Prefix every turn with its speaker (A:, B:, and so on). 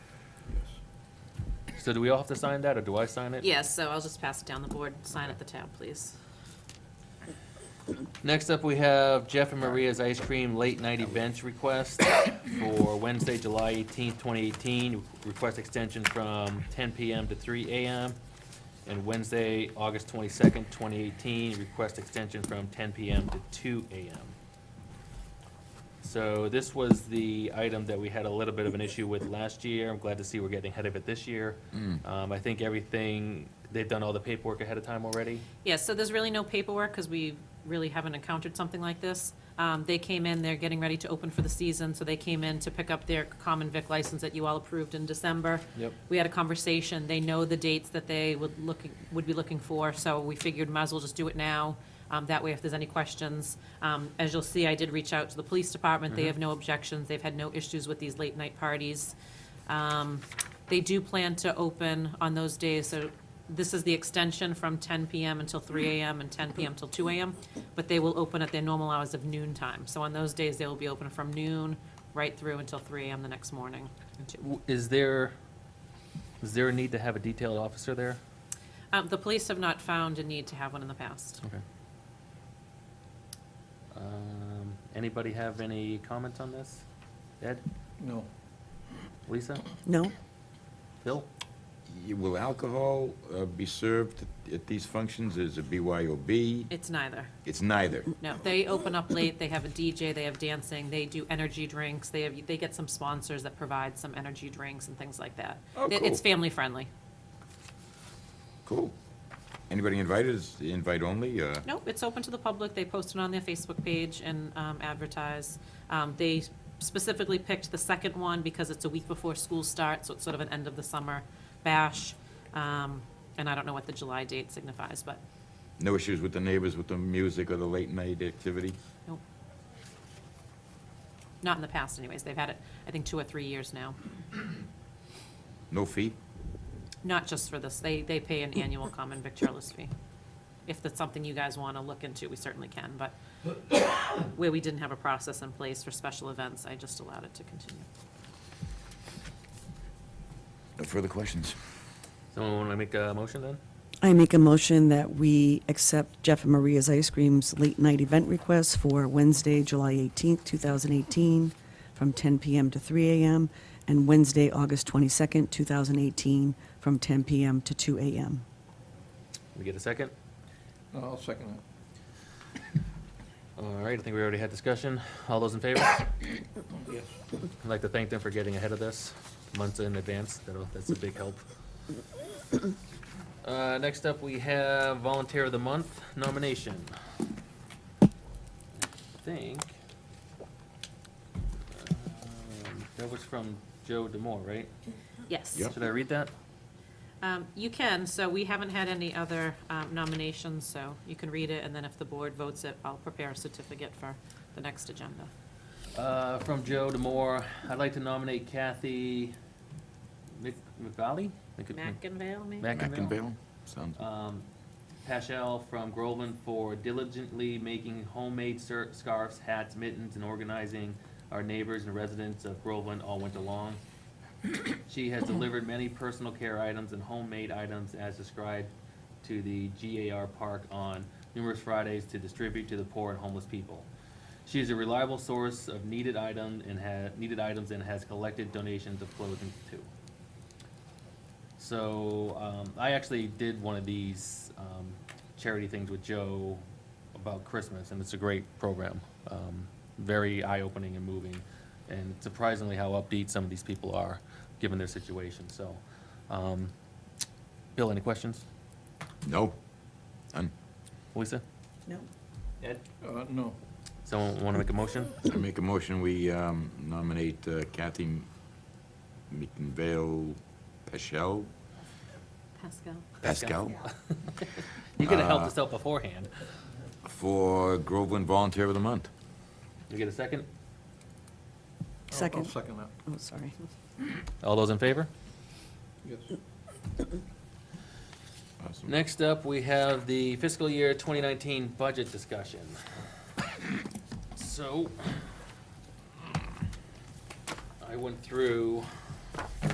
A: So do we all have to sign that, or do I sign it?
B: Yes, so I'll just pass it down the board. Sign at the tab, please.
A: Next up, we have Jeff and Maria's Ice Cream Late Night Events Request for Wednesday, July eighteenth, twenty eighteen. Request extension from ten PM to three AM. And Wednesday, August twenty-second, twenty eighteen, request extension from ten PM to two AM. So this was the item that we had a little bit of an issue with last year. I'm glad to see we're getting ahead of it this year. Um, I think everything, they've done all the paperwork ahead of time already.
B: Yes, so there's really no paperwork, because we really haven't encountered something like this. Um, They came in, they're getting ready to open for the season, so they came in to pick up their common vic license that you all approved in December.
A: Yep.
B: We had a conversation, they know the dates that they would looking, would be looking for, so we figured might as well just do it now. Um, That way, if there's any questions, um, as you'll see, I did reach out to the police department, they have no objections, they've had no issues with these late-night parties. Um, They do plan to open on those days, so this is the extension from 10 PM until 3 AM and 10 PM till 2 AM, but they will open at their normal hours of noon time. So on those days, they will be open from noon right through until 3 AM the next morning.
A: W- Is there, is there a need to have a detailed officer there?
B: Um, The police have not found a need to have one in the
C: Oh.
B: past.
A: Okay. Um, Anybody have any comments on this? Ed,
D: No.
A: Lisa,
E: No?
A: Phil?
C: Y- Will alcohol uh, be served at these functions? Is it BYOB?
B: It's neither.
C: It's neither.
B: No, they open up late, they have a DJ, they have dancing, they do energy drinks, they have, they get some sponsors that provide some energy drinks and things like that.
C: Oh,
B: It- It's
C: cool.
B: family friendly.
C: Cool. Anybody invited? Is it invite only? uh,
B: Nope, it's open to the public. They post it on their Facebook page and um, advertise. Um, They specifically picked the second one because it's a week before school starts, so it's sort of an end of the summer bash. Um, And I don't know what the July date signifies, but,
C: No issues with the neighbors with the music or the late night activity?
B: nope. Not in the past anyways. They've had it, I think, two or three years now.
C: No fee?
B: Not just for this. They, they pay an annual common victualist fee. If that's something you guys want to look into, we certainly can, but where we didn't have a process in place for special events, I just allowed it to continue.
C: No further questions?
A: Someone want to make a motion then?
E: I make a motion that we accept Jeff and Maria's Ice Cream's late-night event request for Wednesday, July 18th, 2018, from 10 PM to 3 AM, and Wednesday, August 22nd, 2018, from 10 PM to 2 AM.
A: We get a second?
D: No, I'll second that.
A: All right, I think we already had discussion. All those in favor? I'd
D: Yes.
A: like to thank them for getting ahead of this months in advance. That'll, that's a big help. Uh, next up, we have Volunteer of the Month nomination. I think. um, That was from Joe Demore, right?
B: Yes.
C: Yep.
A: Should I read that?
B: Um, You can, so we haven't had any other um, nominations, so you can read it, and then if the board votes it, I'll prepare a certificate for the next agenda.
A: Uh, from Joe Demore, I'd like to nominate Kathy Mc, McValley? Mc- Mc-
B: McInvale, maybe?
A: McInville?
C: Mackinville? Sounds,
A: Um, Paschal from Groveland for diligently making homemade ser- scarves, hats, mittens, and organizing our neighbors and residents of Groveland all winter long. She has delivered many personal care items and homemade items as described to the GAR Park on numerous Fridays to distribute to the poor and homeless people. She is a reliable source of needed item and ha- needed items and has collected donations of clothing too. So um, I actually did one of these um, charity things with Joe about Christmas, and it's a great program. Um, very eye opening and moving, and surprisingly how upbeat some of these people are given their situation. So, um, Bill, any questions?
C: no. None.
A: Lisa?
E: No.
A: Ed?
D: Uh, no.
A: Someone want to make a motion?
C: I make a motion, we um, nominate uh, Kathy McInville Paschal?
B: Pascal?
C: Pascal?
A: You could have helped us out beforehand.
C: For Groveland Volunteer of the Month.
A: You get a second?
D: I'll- I'll
E: Second.
D: second that.
E: Oh, sorry.
A: All those in favor?
D: Yes.
C: Awesome.
A: Next up, we have the fiscal year 2019 budget discussion. So, I went through